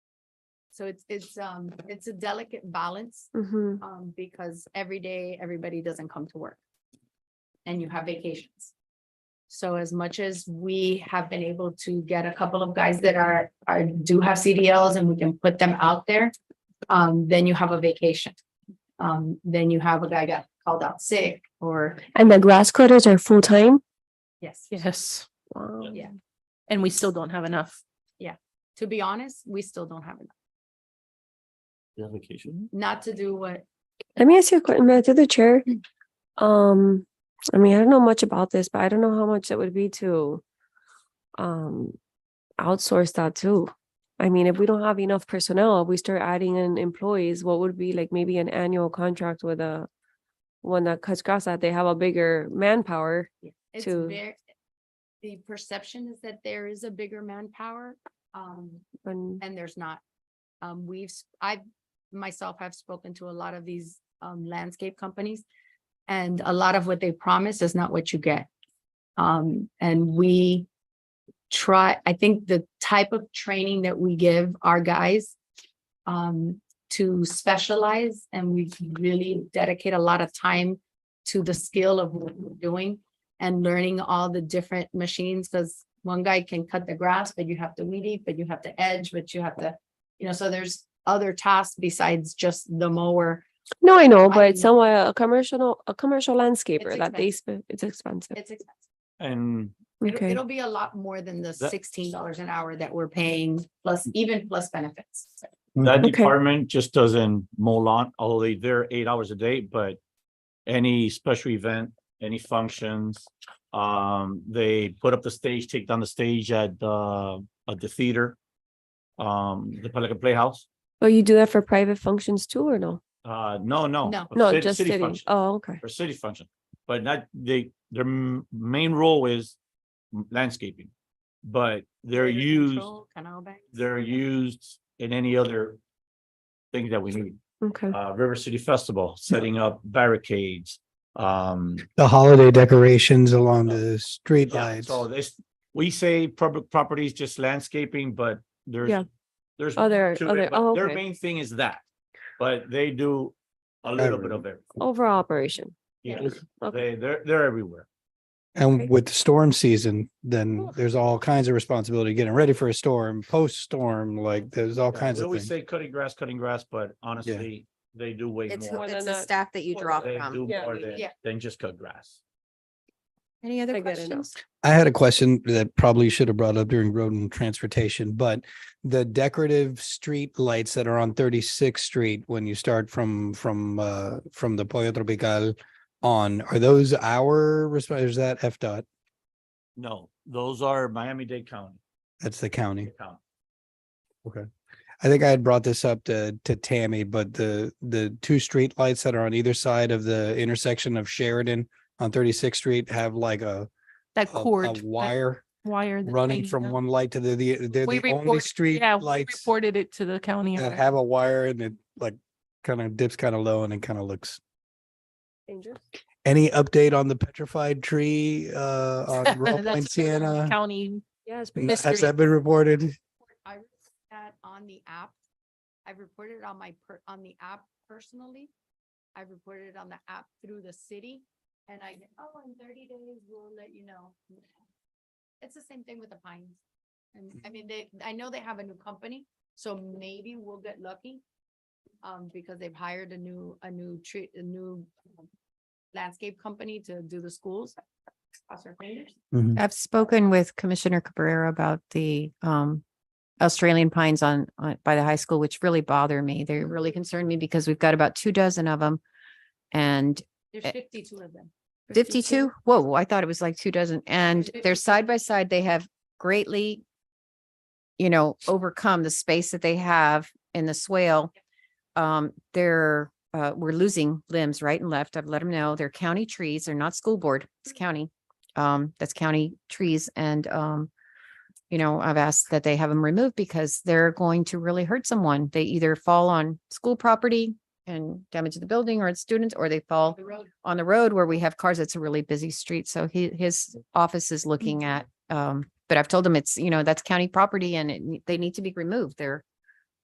So it's, it's, um, it's a delicate balance, Mm-hmm. um, because every day, everybody doesn't come to work. And you have vacations. So as much as we have been able to get a couple of guys that are, are, do have CDLs and we can put them out there. Um, then you have a vacation. Um, then you have a guy got called out sick or, And the grass cutters are full time. yes. Yes. Wow. Yeah. And we still don't have enough. To be honest, we still don't have enough, Your vacation? not to do what Let me ask you a question Matt, through the chair. Um, I mean, I don't know much about this, but I don't know how much it would be to um outsource that too. I mean, if we don't have enough personnel, we start adding in employees, what would be like maybe an annual contract with a one that cuts grass that they have a bigger manpower. It's to- very, the perception is that there is a bigger manpower, um, And and there's not. Um, we've, s- I've, myself, have spoken to a lot of these, um, landscape companies. And a lot of what they promise is not what you get. Um, and we try, I think the type of training that we give our guys um, to specialize and we really dedicate a lot of time to the skill of what we're doing and learning all the different machines, because one guy can cut the grass, but you have to weed eat, but you have to edge, but you have to, you know, so there's other tasks besides just the mower. no, I know, I- but somewhat a commercial, a commercial landscaper that they, sp- it's expensive. It's expensive. And It'll, Okay, it'll be a lot more than the That- sixteen dollars an hour that we're paying, plus even plus benefits. that Mm-hmm. Okay. department just doesn't mow lawn, although they- they're eight hours a day, but any special event, any functions, um, they put up the stage, take down the stage at the, at the theater, um, the Pelican Playhouse. but Oh, you do that for private functions too, or no? Uh, no, no. No. for No, cit- just city. function- Oh, okay. For city function, but not, they, their m- main role is landscaping. But they're Litter used, control, Canal bank. they're used in any other thing that we need. Okay. uh, River City Festival, setting up barricades. Um, the holiday decorations along Yeah. the yeah, streetlights. so this, we say public properties, just landscaping, but Yeah. there's, there's. Other- to it, other- but oh, Their okay. main thing is that, but they do a little bit of everything. overall operation. Yeah. Yes, Okay. They, they're, they're everywhere. And Okay. with the storm season, then there's all kinds of responsibility getting ready for a storm, post-storm, like there's all Yeah, kinds We of always say things. cutting grass, cutting grass, but honestly, they do way It's, who- more. More it's than the that. staff that you More draw They do from. Yeah, more we- than, yeah. than just cut grass. Any I other get it now. questions? I had a question that probably should have brought up during road and transportation, but the decorative street lights that are on thirty-sixth street when you start from, from, uh, from the Pollo Tropical on, are those our, resp- is that FDOT? No, those are Miami-Dade County. That's the county. County. I think I had brought this up to to Tammy, but the the two street lights that are on either side of the intersection of Sheridan on 36th Street have like a That a- a cord. that wire Wire. that running hangs from up. one light to the the they're We the only report- street Yeah, we lights Reported it to the county. that already. have a wire and it like kind of dips kind of low and it kind of looks. Dangerous. Any update on the petrified tree uh on Royal That's Point what the Sienna? County. Yeah, it's N- pretty Has mystery. that been reported? I reported that on the app. I reported it on my, per- on the app personally. I reported it on the app through the city and I, get, oh, in thirty days, we'll let you know. It's the same thing with the pines. And Mm-hmm. I mean, they, I know they have a new company, so maybe we'll get lucky. Um, because they've hired a new, a new tree, a new um, landscape company to do the schools. Cross our fingers. I've spoken with Commissioner Cabrera about the um Australian pines on on by the high school, which really bother me. They really concern me because we've got about two dozen of them. And There's Eh, fifty-two of them. fifty-two? Whoa, I thought it was like two dozen. And 52. they're side by side. They have greatly you know, overcome the space that they have in the swale. Um, they're uh, we're losing limbs right and left. I've let them know. They're county trees. They're not school board. It's county. Um, that's county trees and um you know, I've asked that they have them removed because they're going to really hurt someone. They either fall on school property and damage the building or its students, or they fall The road on the road where we have cars, it's a really busy street. So he, his office is looking at, um, but I've told him it's, you know, that's county property and it, ne- they need to be removed. They're